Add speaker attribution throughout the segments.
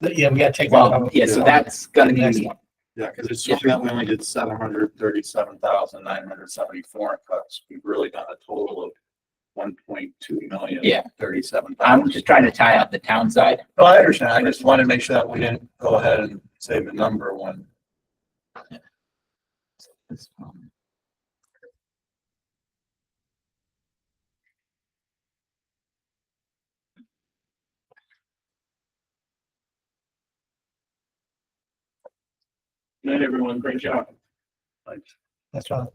Speaker 1: Yeah, we gotta take that
Speaker 2: Well,
Speaker 1: out.
Speaker 2: yeah, so that's gonna be,
Speaker 3: Yeah, because it's showing that we only did seven hundred thirty-seven thousand nine hundred seventy-four in cuts. We've really done a total of one point two million.
Speaker 2: Yeah.
Speaker 3: Thirty-seven.
Speaker 2: I'm just trying to tie up the town side.
Speaker 3: No, I understand. I just wanted to make sure that we didn't go ahead and say the number one.
Speaker 2: Um,
Speaker 4: Night, everyone. Great job.
Speaker 1: That's right.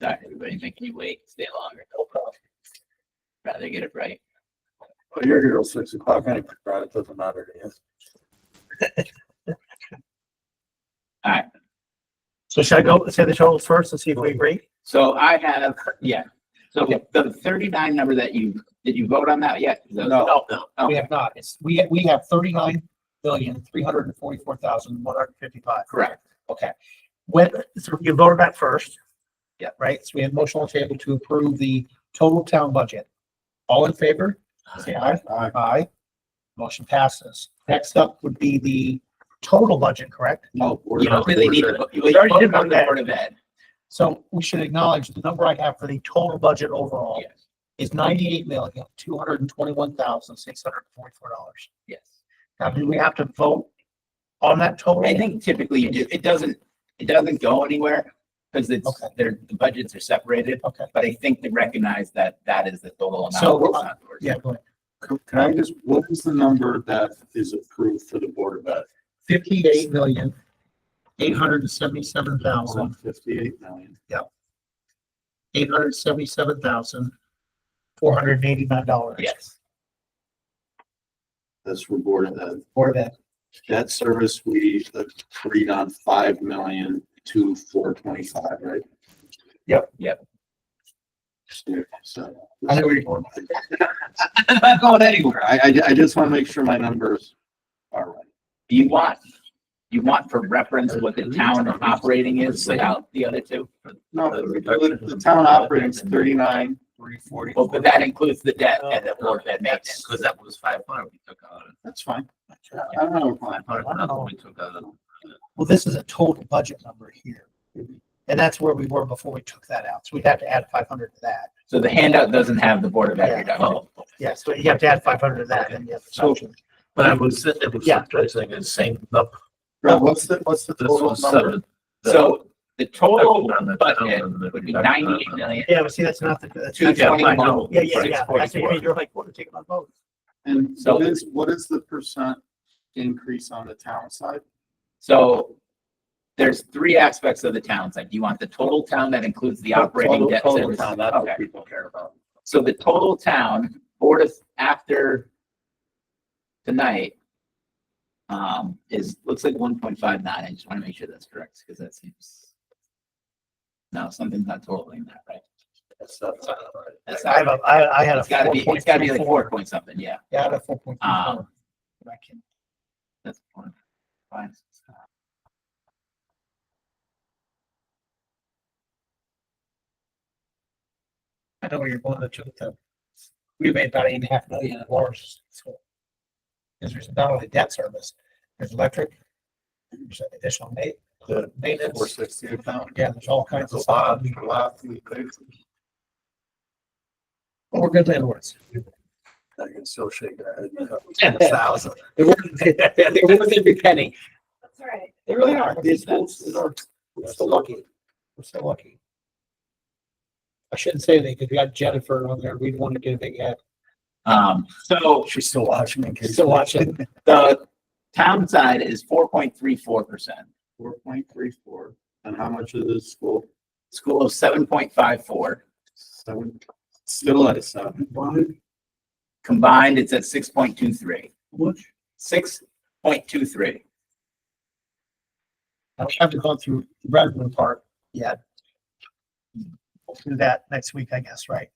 Speaker 2: Sorry, everybody making you wait, stay longer. Rather get it right.
Speaker 3: Well, you're here till six o'clock anyway, right? It doesn't matter to you.
Speaker 1: So should I go say the total first and see if we agree?
Speaker 2: So I have, yeah, so the thirty-nine number that you, did you vote on that yet?
Speaker 3: No.
Speaker 1: No, no, we have not. It's, we, we have thirty-nine million, three hundred and forty-four thousand, one hundred and fifty-five.
Speaker 2: Correct.
Speaker 1: Okay. When, so you voted that first. Yeah. Right? So we have motion on the table to approve the total town budget. All in favor? Say aye.
Speaker 3: Aye.
Speaker 1: Aye. Motion passes. Next up would be the total budget, correct?
Speaker 3: No, we're
Speaker 2: You don't
Speaker 3: not-
Speaker 2: really need to. you
Speaker 1: We already did
Speaker 2: vote on the
Speaker 1: that.
Speaker 2: Board of Ed.
Speaker 1: So we should acknowledge the number I have for the total budget overall
Speaker 2: Yes,
Speaker 1: is ninety-eight million, two hundred and twenty-one thousand, six hundred and forty-four dollars.
Speaker 2: yes.
Speaker 1: Now, do we have to vote on that total?
Speaker 2: I think typically you do, it doesn't, it doesn't go anywhere because it's,
Speaker 1: Okay.
Speaker 2: they're, the budgets are separated,
Speaker 1: Okay,
Speaker 2: but I think they recognize that that is the total amount.
Speaker 1: So,
Speaker 2: It's not yours.
Speaker 1: yeah, go ahead.
Speaker 3: Can can I just, what is the number that is approved for the Board of Ed?
Speaker 1: Fifty-eight million, eight hundred and seventy-seven thousand,
Speaker 3: Fifty-eight million.
Speaker 1: eight hundred and seventy-seven thousand, four hundred and eighty-nine dollars.
Speaker 2: Yes,
Speaker 3: That's for Board of Ed.
Speaker 1: For that,
Speaker 3: Debt service, we agreed on five million to four twenty-five, right?
Speaker 1: Yep.
Speaker 2: Yep.
Speaker 3: So.
Speaker 1: I know where you're
Speaker 2: I'm not going anywhere.
Speaker 3: I, I, I just want to make sure my numbers are right.
Speaker 2: You want, you want for reference what the town operating is without the other two?
Speaker 3: No, the, the town operating's thirty-nine, three forty.
Speaker 2: Well, but that includes the debt and the board Oh, that
Speaker 5: That's
Speaker 2: makes.
Speaker 5: because that was five hundred we took out.
Speaker 3: That's fine. I don't know.
Speaker 5: Five hundred thousand we took out.
Speaker 1: well, this is a total budget number here. And that's where we were before we took that out. So we'd have to add five hundred to that.
Speaker 2: So the handout doesn't have the board of
Speaker 1: Yeah.
Speaker 2: ed reduction.
Speaker 5: Oh,
Speaker 1: Yeah, so you have to add five hundred to that and the other
Speaker 5: So-
Speaker 1: section.
Speaker 5: but I was, it was,
Speaker 1: Yeah.
Speaker 5: I was thinking the same, number.
Speaker 3: Rob, what's the, what's the
Speaker 5: this
Speaker 3: total
Speaker 5: was
Speaker 3: number?
Speaker 5: seven.
Speaker 2: So the total
Speaker 5: On the
Speaker 2: budget
Speaker 5: town and
Speaker 2: would be
Speaker 5: the-
Speaker 2: ninety-eight million,
Speaker 1: Yeah, but see, that's not the, that's.
Speaker 2: two
Speaker 1: not-
Speaker 5: Yeah, I
Speaker 2: twenty-one.
Speaker 5: know.
Speaker 1: Yeah, yeah, yeah.
Speaker 2: Six
Speaker 1: That's what I
Speaker 2: forty-four.
Speaker 1: mean. You're like, what, take my vote?
Speaker 3: And
Speaker 2: So-
Speaker 3: what is, what is the percent increase on the town side?
Speaker 2: So there's three aspects of the town side. You want the total town that includes the operating
Speaker 3: Total-
Speaker 2: debt
Speaker 3: total
Speaker 2: service.
Speaker 3: town, that's what
Speaker 2: Okay.
Speaker 3: People care about.
Speaker 2: So the total town, board of, after tonight, um, is, looks like one point five nine. I just want to make sure that's correct because that seems. No, something's not totaling that, right?
Speaker 3: That's, that's.
Speaker 2: That's
Speaker 1: I have
Speaker 2: not,
Speaker 1: a, I, I had a.
Speaker 2: it's gotta be, it's gotta be like four point something, yeah.
Speaker 1: Yeah, I had a four point three four.
Speaker 2: Um,
Speaker 1: but I can't-
Speaker 2: That's one. Five, six, seven.
Speaker 1: I know where you're going to choose them. We made about eight and a half million dollars. Because there's not only debt service, there's electric, there's additional ma- the
Speaker 3: Four
Speaker 1: maintenance,
Speaker 3: sixty a pound.
Speaker 1: yeah, there's all kinds
Speaker 3: That's
Speaker 1: of
Speaker 3: a lot.
Speaker 1: stuff.
Speaker 3: That's a lot. I
Speaker 1: But We're good landlords.
Speaker 3: can still shake that.
Speaker 1: Ten thousand. They're worth they're worth every penny.
Speaker 6: That's all right.
Speaker 1: They really are.
Speaker 3: These
Speaker 1: We're so lucky. We're so lucky. I shouldn't say anything because we got Jennifer on there. We'd want to get a big head.
Speaker 2: Um, so
Speaker 3: She's still watching in case.
Speaker 1: Still watching.
Speaker 2: the town side is four point three four percent.
Speaker 3: Four point three four. And how much is this school?
Speaker 2: School of seven point five four.
Speaker 3: Seven. Still at a seven.
Speaker 2: Combined, it's at six point two three.
Speaker 3: What?
Speaker 2: Six point two three.
Speaker 1: I haven't gone through the Redmond part yet. We'll do that next week, I guess, right?